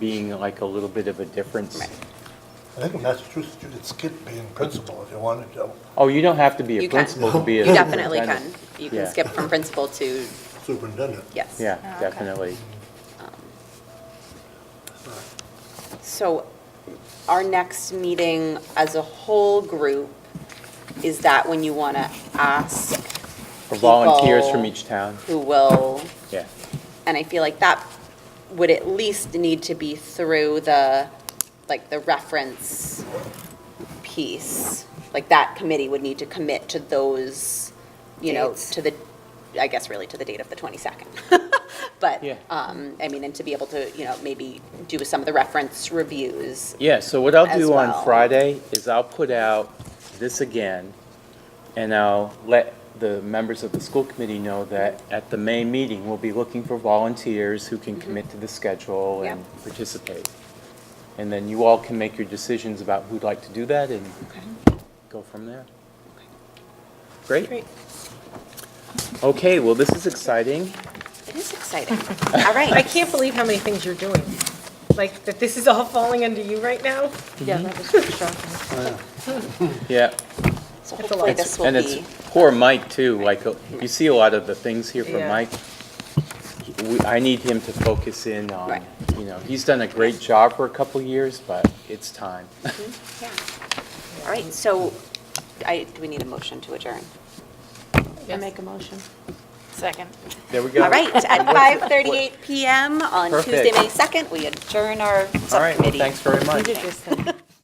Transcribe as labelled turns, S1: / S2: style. S1: being like a little bit of a difference.
S2: Right.
S3: I think in Massachusetts, you could skip being principal if you wanted to.
S1: Oh, you don't have to be
S2: You
S1: a
S2: can.
S1: principal to be
S2: You
S1: a.
S2: definitely can.
S1: superintendent.
S2: You can
S1: Yeah.
S2: skip from principal to,
S3: Superintendent.
S2: yes.
S1: Yeah, definitely.
S2: So our next meeting as a whole group, is that when you want to ask
S1: For volunteers
S2: people
S1: from each town,
S2: who will,
S1: yeah.
S2: and I feel like that would at least need to be through the, like, the reference piece. Like, that committee would need to commit to those, you know,
S4: Dates.
S2: to the, I guess really to the date of the 22nd. But,
S1: Yeah.
S2: um, I mean, and to be able to, you know, maybe do some of the reference reviews.
S1: Yeah, so what I'll
S2: as
S1: do
S2: well.
S1: on Friday is I'll put out this again, and I'll let the members of the school committee know that at the May meeting, we'll be looking for volunteers who
S2: Mm-hmm.
S1: can commit to the schedule and
S2: Yeah.
S1: participate. And then you all can make your decisions about who'd like to do that and go from there. Great. Okay, well, this is exciting.
S2: It is exciting. All right.
S4: I can't believe how many things you're doing. Like, that this is all falling under you right now?
S5: Yeah, that was pretty shocking.
S1: Yeah.
S2: So
S4: It's a
S2: hopefully
S4: lot.
S2: this will
S1: And
S2: be,
S1: it's poor Mike too, like, uh, you see a lot of the things here from
S4: Yeah.
S1: Mike. He- we- I need him to focus in on,
S2: Right.
S1: you know, he's done a great job for a couple of years, but it's time.
S2: yeah. All right, so I, do we need a motion to adjourn?
S5: I make a motion. Second.
S1: There we go.
S2: All right, at 5:38 PM on Tuesday,
S1: Perfect.
S2: May 2nd, we adjourn
S1: All
S2: our
S1: right, well,
S2: subcommittee.
S1: thanks very
S5: You
S1: much.
S5: did this thing.